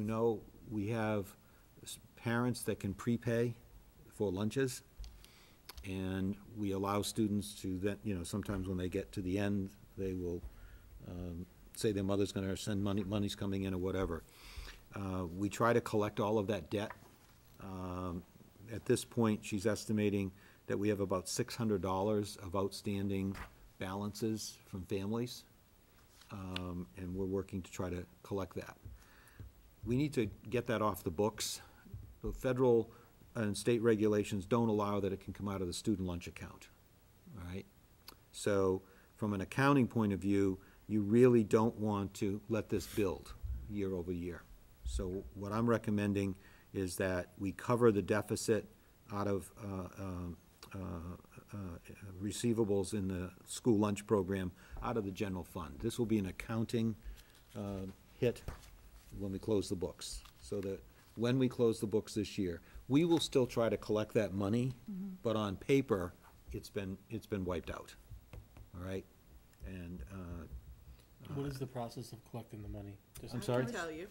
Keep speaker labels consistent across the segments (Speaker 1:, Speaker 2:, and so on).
Speaker 1: You know, we have s- parents that can prepay for lunches, and we allow students to then, you know, sometimes when they get to the end, they will um, say their mother's gonna send money, money's coming in or whatever. Uh, We try to collect all of that debt. Um, At this point, she's estimating that we have about six hundred dollars of outstanding balances from families, um, and we're working to try to collect that we need to get that off the books. The federal and state regulations don't allow that it can come out of the student lunch account, all right? So, from an accounting point of view, you really don't want to let this build year over year. So what I'm recommending is that we cover the deficit out of uh, um, uh, uh, receivables in the school lunch program out of the general fund. This will be an accounting uh, hit when we close the books, so that when we close the books this year, we will still try to collect that money, but on paper, it's been, it's been wiped out, all right? And, uh,
Speaker 2: What is the process of collecting the money? Just-
Speaker 1: I'm sorry?
Speaker 3: I can tell you.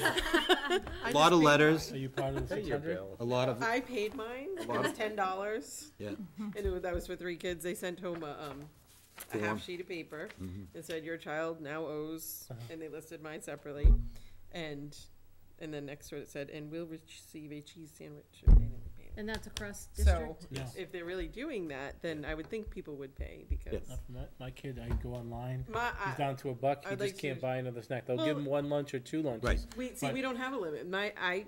Speaker 1: a lot of letters,
Speaker 2: Are you part of the six hundred?
Speaker 1: a lot of,
Speaker 3: I paid mine. It
Speaker 1: Wow.
Speaker 3: was ten dollars,
Speaker 1: yeah,
Speaker 3: and it was, that was for three kids. They sent home a, um, a
Speaker 1: Form.
Speaker 3: half sheet of paper
Speaker 2: Mm-hmm.
Speaker 3: and said, "Your child now owes,"
Speaker 2: Uh-huh.
Speaker 3: and they listed mine separately, and and then next to it it said, "And will receive a cheese sandwich if they didn't pay." it."
Speaker 4: And that's across
Speaker 3: So
Speaker 4: district?
Speaker 2: Yeah.
Speaker 3: if they're really doing that, then I would think people would pay because
Speaker 1: Yes.
Speaker 2: My, my kid, I go online,
Speaker 3: my
Speaker 2: he's
Speaker 3: I,
Speaker 2: down to a buck, he
Speaker 3: I'd like
Speaker 2: just can't
Speaker 3: to-
Speaker 2: buy another snack. They'll give
Speaker 3: Well-
Speaker 2: him one lunch or two lunches.
Speaker 1: Right.
Speaker 3: we see
Speaker 2: But-
Speaker 3: we don't have a limit. My I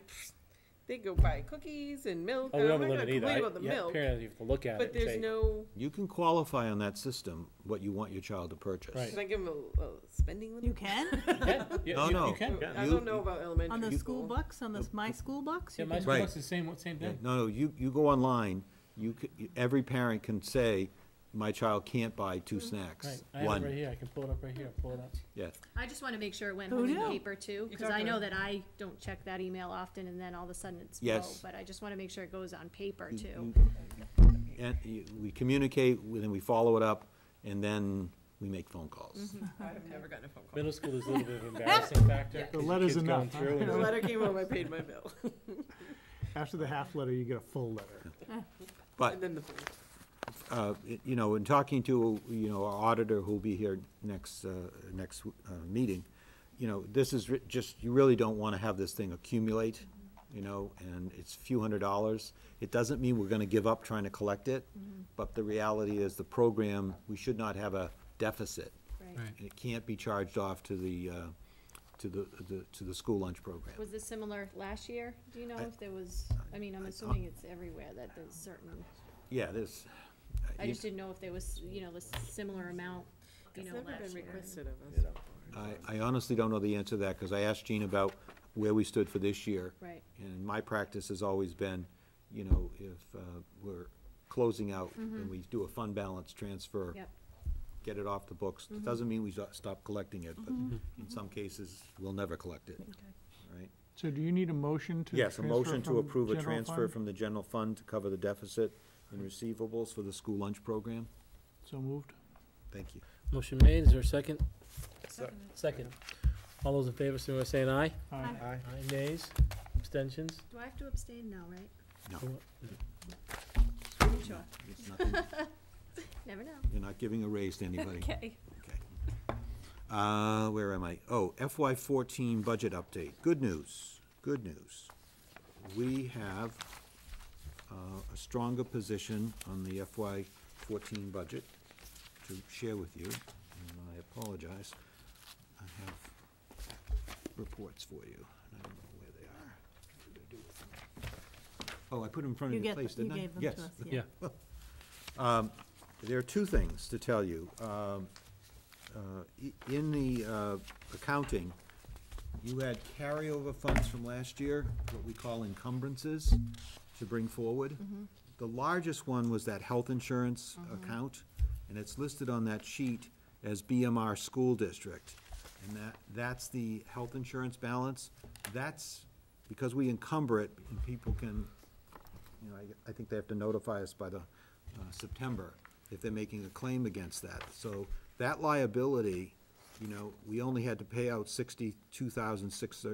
Speaker 3: they go buy cookies and milk.
Speaker 2: Oh,
Speaker 3: and
Speaker 2: we
Speaker 3: I'm
Speaker 2: don't
Speaker 3: not
Speaker 2: limit
Speaker 3: gonna
Speaker 2: either.
Speaker 3: complain
Speaker 2: I-
Speaker 3: about the
Speaker 2: yeah,
Speaker 3: milk,
Speaker 2: Apparently you have to look at
Speaker 3: but
Speaker 2: it and
Speaker 3: there's
Speaker 2: say,
Speaker 3: no.
Speaker 1: you can qualify on that system what you want your child to purchase.
Speaker 2: Right.
Speaker 3: Can I give them a, a spending limit?
Speaker 5: You can?
Speaker 2: yeah, yeah,
Speaker 1: No,
Speaker 2: you-
Speaker 1: no.
Speaker 2: you can.
Speaker 1: Yeah.
Speaker 3: I
Speaker 1: You-
Speaker 3: don't know about elementary
Speaker 5: On the school books, on the, my school books?
Speaker 2: Yeah,
Speaker 5: you
Speaker 2: my
Speaker 5: can-
Speaker 1: Right.
Speaker 2: book's the same, same
Speaker 1: Yeah,
Speaker 2: thing.
Speaker 1: No, no, you, you go online, you, c- every parent can say, my child can't buy two
Speaker 2: Right,
Speaker 1: snacks,
Speaker 2: I have it right
Speaker 1: one,
Speaker 2: here, I can pull it up right here, pull it up.
Speaker 1: yeah.
Speaker 4: I just wanna make sure it went
Speaker 5: Who
Speaker 4: home in
Speaker 5: knew?
Speaker 4: paper too,
Speaker 3: Oh, You
Speaker 4: cause I
Speaker 3: talked
Speaker 4: know
Speaker 3: about-
Speaker 4: that I don't check that email often and then all of a sudden it's low.
Speaker 1: Yes. Mm,
Speaker 4: But I just wanna make sure it goes on paper
Speaker 1: You-
Speaker 4: too.
Speaker 1: you- And you- we communicate, we- then we follow it up, and then we make phone calls.
Speaker 3: I've never gotten a phone call.
Speaker 2: Middle school is a little bit of embarrassing factor.
Speaker 3: Yeah.
Speaker 2: 'cause
Speaker 6: The
Speaker 2: your
Speaker 6: letter's
Speaker 2: kid's going
Speaker 6: enough, huh?
Speaker 2: through and-
Speaker 3: The letter came home, I paid my bill,
Speaker 6: After the half letter, you get a full letter.
Speaker 1: But
Speaker 3: and then the food.
Speaker 1: uh, it- you know, in talking to, you know, our auditor who'll be here next, uh, next uh, meeting, you know, this is ri- just, you really don't want to have this thing accumulate, you know, and it's a few hundred dollars. It doesn't mean we're going to give up trying to collect it, but the reality is the program, we should not have a deficit.
Speaker 4: Right.
Speaker 2: Right.
Speaker 1: And it can't be charged off to the, uh, to the, the- to the school lunch program.
Speaker 4: Was this similar last year? Do you know
Speaker 1: I-
Speaker 4: if there was, I mean, I'm assuming it's everywhere that there's certain,
Speaker 1: Yeah, this.
Speaker 4: I just didn't know if there was, you know, a similar amount, you
Speaker 3: It's
Speaker 4: know,
Speaker 3: never been
Speaker 4: last year.
Speaker 3: requested of us.
Speaker 1: I, I honestly don't know the answer to that, because I asked Gene about where we stood for this year.
Speaker 4: Right.
Speaker 1: And my practice has always been, you know, if uh, we're closing out and we do a fund balance transfer.
Speaker 4: Mm-hmm. Yep. Mm-hmm.
Speaker 1: Get it off the books. It Doesn't mean we so- stop collecting it, but in some cases, we'll never collect it, all right?
Speaker 6: So do you need a motion to?
Speaker 1: Yes, a
Speaker 6: transfer
Speaker 1: motion to
Speaker 6: from
Speaker 1: approve a
Speaker 6: general
Speaker 1: transfer
Speaker 6: fund?
Speaker 1: from the general fund to cover the deficit in receivables for the school lunch program.
Speaker 6: So moved.
Speaker 1: Thank you.
Speaker 2: Motion made, is there a second? Second. All those in favor, so we're saying aye?
Speaker 6: Aye.
Speaker 2: Aye. Nays, abstentions?
Speaker 4: Do I have to abstain? No, right?
Speaker 1: No,
Speaker 4: Sure.
Speaker 1: it's nothing-
Speaker 4: Never know.
Speaker 1: you're not giving a raise to anybody.
Speaker 4: Okay.
Speaker 1: Okay. Uh, where am I? Oh, FY fourteen budget update. Good news, good news. We have, uh, a stronger position on the FY fourteen budget to share with you, and I apologize. I have reports for you, and I don't know where they are. What did I do with them? Oh, I put them in front
Speaker 5: You
Speaker 1: of your
Speaker 5: get,
Speaker 1: place,
Speaker 5: you
Speaker 1: didn't I?
Speaker 5: gave them
Speaker 1: Yes.
Speaker 5: to us, yeah.
Speaker 2: Yeah.
Speaker 1: There are two things to tell you. Um, uh, i- In the uh, accounting, you had carryover funds from last year, what we call encumbrances, to bring forward. The largest one was that health insurance account, and it's listed on that sheet as BMR School District. And that, that's the health insurance balance. That's because we encumber it, and people can you know, I, I think they have to notify us by the, uh, September if they're making a claim against that. So that liability, you know, we only had to pay out sixty-two thousand six